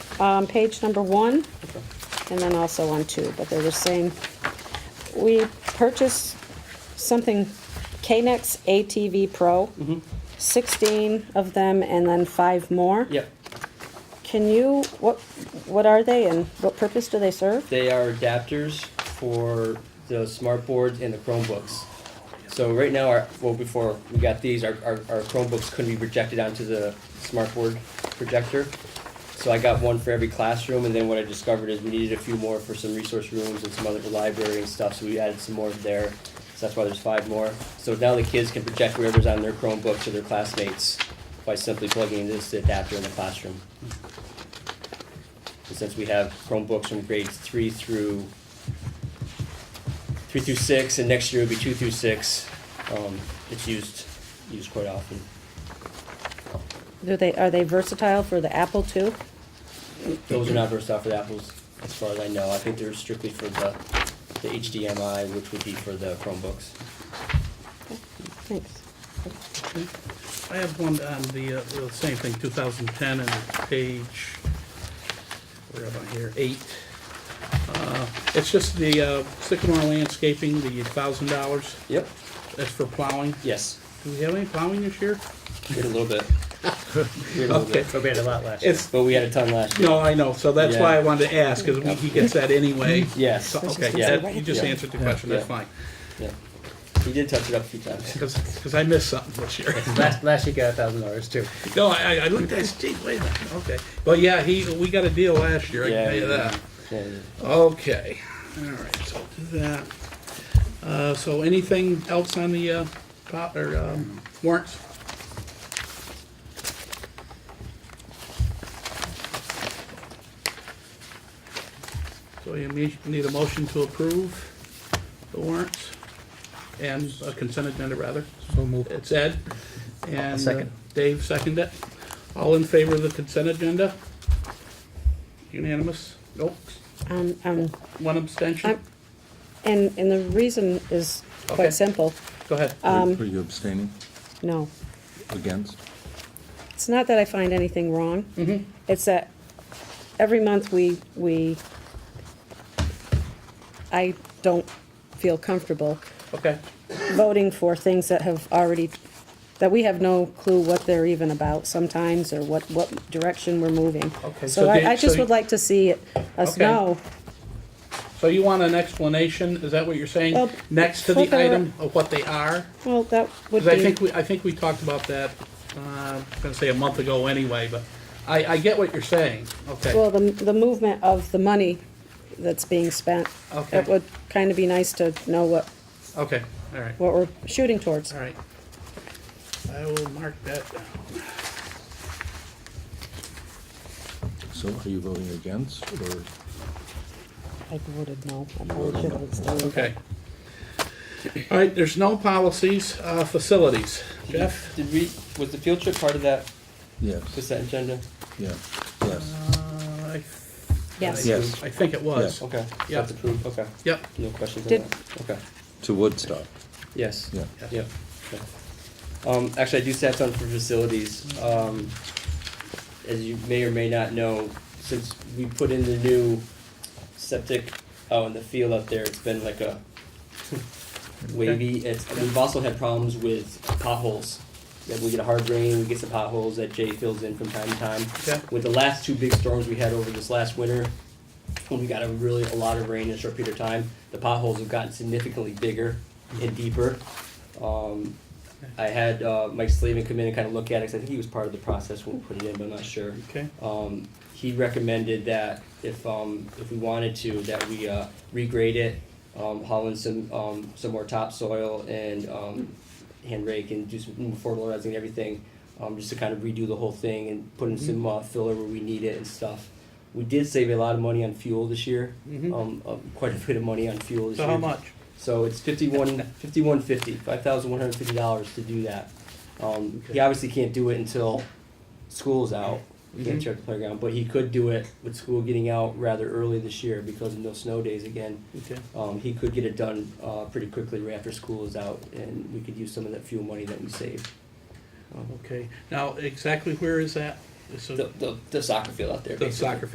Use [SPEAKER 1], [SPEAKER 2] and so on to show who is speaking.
[SPEAKER 1] um, page number one, and then also on two, but they're the same. We purchased something, K-Nex ATV Pro. Sixteen of them and then five more.
[SPEAKER 2] Yep,
[SPEAKER 1] Can you, what, what are they and what purpose do they serve?
[SPEAKER 2] they are adapters for the smart boards and the Chromebooks. So right now, our, well, before we got these, our, our, our Chromebooks couldn't be projected onto the smart board projector. So I got one for every classroom, and then what I discovered is we needed a few more for some resource rooms and some other library and stuff, so we added some more there. So that's why there's five more. So now the kids can project whatever's on their Chromebook to their classmates by simply plugging this adapter in the classroom. And since we have Chromebooks from grades three through three through six, and next year it'll be two through six, um, it's used used quite often.
[SPEAKER 1] Do they, are they versatile for the Apple too?
[SPEAKER 2] Those are not versatile for the apples, as far as I know. I think they're strictly for the the HDMI, which would be for the Chromebooks.
[SPEAKER 1] Thanks.
[SPEAKER 3] I have one on the, uh, the same thing, 2010, and it's page, where am I here, eight. Uh, It's just the uh, Sycamore landscaping, the $1,000,
[SPEAKER 2] Yep.
[SPEAKER 3] that's for plowing.
[SPEAKER 2] Yes.
[SPEAKER 3] Do we have any plowing this year?
[SPEAKER 2] We had a little bit. We had a little bit.
[SPEAKER 4] But we had a lot last year.
[SPEAKER 3] It's,
[SPEAKER 2] But we had a ton last year.
[SPEAKER 3] no, I know, so that's why I
[SPEAKER 2] Yeah.
[SPEAKER 3] wanted to ask, because he gets that anyway.
[SPEAKER 2] Yes.
[SPEAKER 3] So, Okay,
[SPEAKER 2] Yeah.
[SPEAKER 3] that- you just answered the question, that's fine,
[SPEAKER 2] Yeah. He did touch it up a few times.
[SPEAKER 3] because I missed something this year.
[SPEAKER 4] Last, last year got a thousand dollars too.
[SPEAKER 3] No, I, I- I looked at it, gee, wait a minute, okay. But yeah, he, we got a deal last year, I can
[SPEAKER 2] Yeah,
[SPEAKER 3] tell you
[SPEAKER 2] yeah,
[SPEAKER 3] that.
[SPEAKER 2] Yeah, yeah.
[SPEAKER 3] Okay, all right, so I'll do that. Uh, so anything else on the, uh, po- or, um, warrants? So you me- need a motion to approve the warrants and a consent agenda rather.
[SPEAKER 4] So moved.
[SPEAKER 3] It's Ed and uh,
[SPEAKER 4] second.
[SPEAKER 3] Dave seconded it. All in favor of the consent agenda? Unanimous? Nope.
[SPEAKER 1] Um, um,
[SPEAKER 3] One abstention?
[SPEAKER 1] I'm- and, and the reason is
[SPEAKER 3] Okay.
[SPEAKER 1] quite simple.
[SPEAKER 3] Go ahead.
[SPEAKER 5] Are you abstaining
[SPEAKER 1] No,
[SPEAKER 5] against?
[SPEAKER 1] it's not that I find anything wrong.
[SPEAKER 3] Mm-hmm.
[SPEAKER 1] It's that every month we, we, I don't feel comfortable
[SPEAKER 3] Okay,
[SPEAKER 1] voting for things that have already, that we have no clue what they're even about sometimes, or what, what direction we're moving.
[SPEAKER 3] Okay,
[SPEAKER 1] So
[SPEAKER 3] so
[SPEAKER 1] I,
[SPEAKER 3] they-
[SPEAKER 1] I just
[SPEAKER 3] so-
[SPEAKER 1] would like to see it- us
[SPEAKER 3] Okay.
[SPEAKER 1] know,
[SPEAKER 3] so you want an explanation, is that what you're saying?
[SPEAKER 1] Well,
[SPEAKER 3] Next to the
[SPEAKER 1] further-
[SPEAKER 3] item of what they are?
[SPEAKER 1] well, that would
[SPEAKER 3] Because I
[SPEAKER 1] be,
[SPEAKER 3] think, we I think we talked about that, uh, I was gonna say a month ago anyway, but I, I get what you're saying, okay.
[SPEAKER 1] well, the, the movement of the money that's being spent.
[SPEAKER 3] Okay.
[SPEAKER 1] It would kind of be nice to know what,
[SPEAKER 3] Okay, all right,
[SPEAKER 1] what we're shooting towards.
[SPEAKER 3] all right. I will mark that down.
[SPEAKER 5] So are you voting against or?
[SPEAKER 1] I voted no. I probably should have abstained.
[SPEAKER 3] Okay. All right, there's no policies, uh, facilities. Jeff?
[SPEAKER 2] Did we? Was the field trip part of that? Was
[SPEAKER 5] Yes,
[SPEAKER 2] that agenda?
[SPEAKER 5] yeah, yes.
[SPEAKER 3] Uh, I-
[SPEAKER 1] Yes.
[SPEAKER 5] Yes.
[SPEAKER 3] I think it was.
[SPEAKER 2] Okay.
[SPEAKER 3] Yeah.
[SPEAKER 2] That's approved. Okay.
[SPEAKER 3] Yep,
[SPEAKER 2] No questions on
[SPEAKER 1] Did-
[SPEAKER 2] that? Okay,
[SPEAKER 5] To Woodstock,
[SPEAKER 2] yes.
[SPEAKER 5] yeah.
[SPEAKER 2] Yep. Okay. Um, actually, I do have something for facilities. Um, as you may or may not know, since we put in the new septic out in the field out there, it's been like a wavy, it's, and we've also had problems with potholes. That we get a hard rain, we get some potholes that Jay fills in from time to time.
[SPEAKER 3] Okay.
[SPEAKER 2] With the last two big storms we had over this last winter, when we got a really, a lot of rain in a short period of time, the potholes have gotten significantly bigger and deeper. Um, I had, uh, Mike Slavin come in and kind of look at it, 'cause I think he was part of the process when we put it in, but I'm not sure.
[SPEAKER 3] okay.
[SPEAKER 2] Um, he recommended that if, um, if we wanted to, that we, uh, regrade it, um, haul in some, um, some more topsoil and, um, hand rake and do some fertilizing and everything, um, just to kind of redo the whole thing and put in
[SPEAKER 3] Mm-hmm.
[SPEAKER 2] some, uh, filler where we need it and stuff. We did save a lot of money on fuel this year,
[SPEAKER 3] Mhm.
[SPEAKER 2] um, uh, quite a bit of money on fuel this
[SPEAKER 3] So
[SPEAKER 2] year.
[SPEAKER 3] how much?
[SPEAKER 2] So it's fifty-one, fifty-one fifty, five thousand one hundred fifty dollars to do that. Um, he
[SPEAKER 3] Okay.
[SPEAKER 2] obviously can't do it until school's out. We can't
[SPEAKER 3] Mhm.
[SPEAKER 2] check the playground, but he could do it with school getting out rather early this year because of no snow days again.
[SPEAKER 3] Okay.
[SPEAKER 2] Um, he could get it done, uh, pretty quickly right after school is out and we could use some of that fuel money that we saved. Um,
[SPEAKER 3] Uh-huh. Okay, now exactly where is that? It's a-
[SPEAKER 2] The, the, the soccer field out there.
[SPEAKER 3] The
[SPEAKER 2] basically.
[SPEAKER 3] soccer